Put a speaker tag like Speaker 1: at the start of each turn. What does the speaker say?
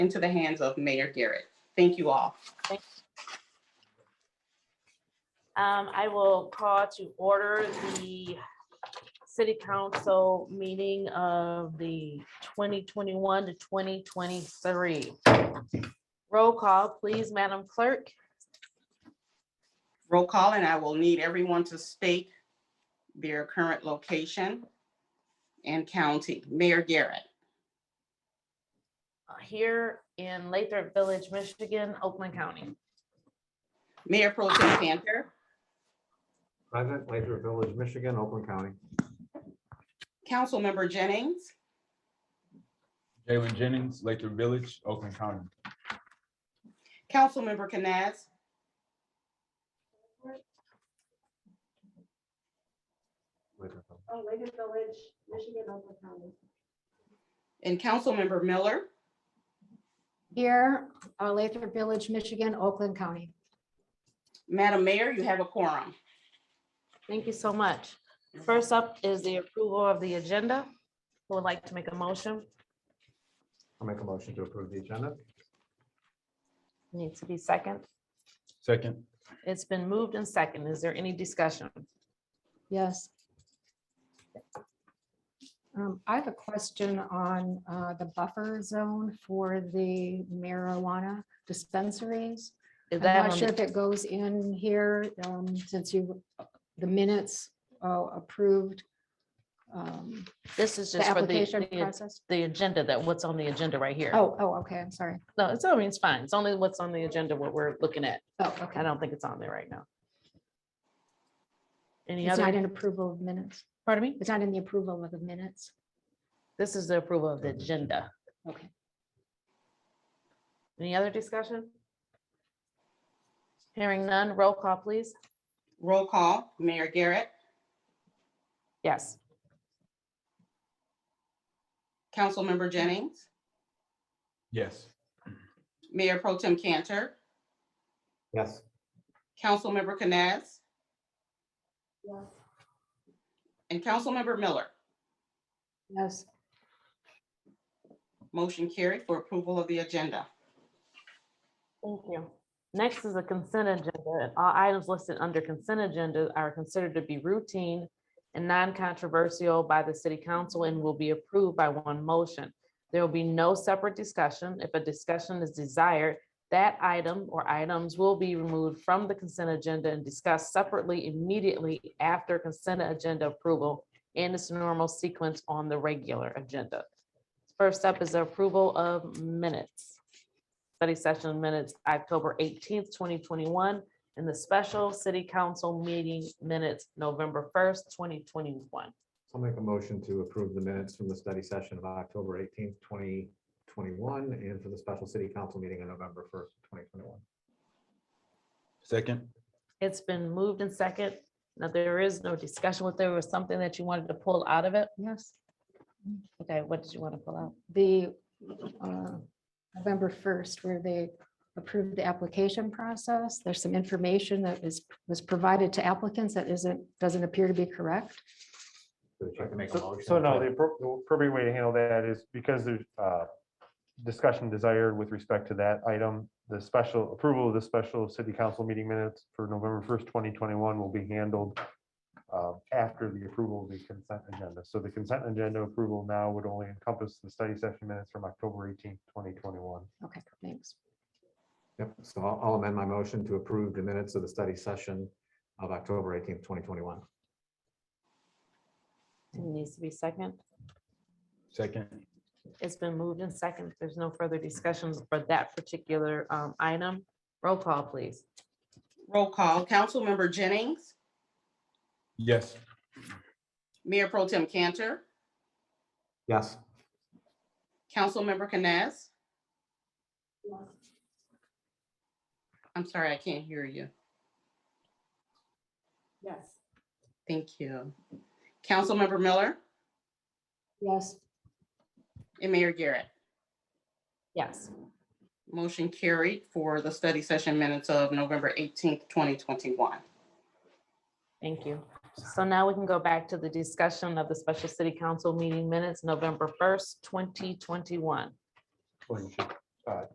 Speaker 1: into the hands of Mayor Garrett. Thank you all.
Speaker 2: Um, I will call to order the city council meeting of the twenty twenty-one to twenty twenty-three. Roll call, please, Madam Clerk.
Speaker 1: Roll call, and I will need everyone to state their current location and county. Mayor Garrett,
Speaker 2: Uh, Here in Lathrop Village, Michigan, Oakland County.
Speaker 1: Mayor Pro Tem Cantor,
Speaker 3: Present, Lathrop Village, Michigan, Oakland County.
Speaker 1: Councilmember Jennings,
Speaker 4: Jalen Jennings, Lathrop Village, Oakland County.
Speaker 1: Councilmember Canaz.
Speaker 3: Lathrop Village.
Speaker 5: Oh, Lake Village, Michigan, Oakland County.
Speaker 1: And Councilmember Miller,
Speaker 5: Here, uh, Lathrop Village, Michigan, Oakland County.
Speaker 1: Madam Mayor, you have a quorum.
Speaker 2: Thank you so much. First up is the approval of the agenda. Who would like to make a motion?
Speaker 3: I'll make a motion to approve the agenda.
Speaker 2: Needs to be second.
Speaker 4: Second,
Speaker 2: It's been moved and second. Is there any discussion?
Speaker 6: Yes. Um, I have a question on, uh, the buffer zone for the marijuana dispensaries.
Speaker 2: Is
Speaker 6: I'm
Speaker 2: that
Speaker 6: not
Speaker 2: on
Speaker 6: sure
Speaker 2: the-
Speaker 6: if it goes in here, um, since you, the minutes, uh, approved. um,
Speaker 2: This is
Speaker 6: The
Speaker 2: just for the-
Speaker 6: application
Speaker 2: the,
Speaker 6: process.
Speaker 2: the agenda that what's on the agenda right here.
Speaker 6: Oh, oh, okay, I'm sorry.
Speaker 2: No, it's, I mean, it's fine. It's only what's on the agenda, what we're looking at.
Speaker 6: Oh,
Speaker 2: I
Speaker 6: okay.
Speaker 2: don't think it's on there right now. Any
Speaker 6: It's not
Speaker 2: other,
Speaker 6: in approval of minutes.
Speaker 2: pardon me?
Speaker 6: It's not in the approval of the minutes.
Speaker 2: This is the approval of the agenda.
Speaker 6: Okay.
Speaker 2: Any other discussion? Hearing none, roll call, please.
Speaker 1: Roll call, Mayor Garrett,
Speaker 2: Yes.
Speaker 1: Councilmember Jennings,
Speaker 4: yes.
Speaker 1: Mayor Pro Tem Cantor,
Speaker 3: Yes.
Speaker 1: Councilmember Canaz,
Speaker 5: Yes.
Speaker 1: and Councilmember Miller.
Speaker 6: Yes.
Speaker 1: Motion carried for approval of the agenda.
Speaker 2: Thank you. Next is a consent agenda. and All items listed under consent agenda are considered to be routine and non-controversial by the city council and will be approved by one motion. There will be no separate discussion. If a discussion is desired, that item or items will be removed from the consent agenda and discussed separately immediately after consent agenda approval in its normal sequence on the regular agenda. First up is approval of minutes study session minutes, October eighteenth, twenty twenty-one, and the special city council meeting minutes, November first, twenty twenty-one.
Speaker 3: I'll make a motion to approve the minutes from the study session of October eighteenth, twenty twenty-one, and for the special city council meeting on November first, twenty twenty-one.
Speaker 4: Second,
Speaker 2: It's been moved and second. Now, there is no discussion. Was there was something that you wanted to pull out of it?
Speaker 6: Yes.
Speaker 2: Okay, what did you want to pull out?
Speaker 6: the uh, November 1st, where they approved the application process. There's some information that is, was provided to applicants that isn't, doesn't appear to be correct.
Speaker 3: I can make a motion.
Speaker 7: So no, the appro- the appropriate way to handle that is because there's uh, discussion desired with respect to that item. The special approval of the special city council meeting minutes for November first, twenty twenty-one will be handled uh, after the approval of the consent agenda. So the consent agenda approval now would only encompass the study session minutes from October eighteenth, twenty twenty-one.
Speaker 6: Okay, thanks.
Speaker 3: Yep, so I'll I'll amend my motion to approve the minutes of the study session of October eighteenth, twenty twenty-one.
Speaker 2: It needs to be second.
Speaker 4: second,
Speaker 2: It's been moved and second. There's no further discussions for that particular um, item. Roll call, please.
Speaker 1: Roll call, Councilmember Jennings,
Speaker 4: yes.
Speaker 1: Mayor Pro Tem Cantor,
Speaker 3: Yes.
Speaker 1: Councilmember Canaz.
Speaker 5: Yes.
Speaker 1: I'm sorry, I can't hear you.
Speaker 5: Yes.
Speaker 1: Thank you. Councilmember Miller
Speaker 6: Yes.
Speaker 1: and Mayor Garrett.
Speaker 2: Yes.
Speaker 1: Motion carried for the study session minutes of November eighteenth, twenty twenty-one.
Speaker 2: Thank you. So now we can go back to the discussion of the special city council meeting minutes, November first, twenty twenty-one.
Speaker 3: Well, you should
Speaker 7: uh,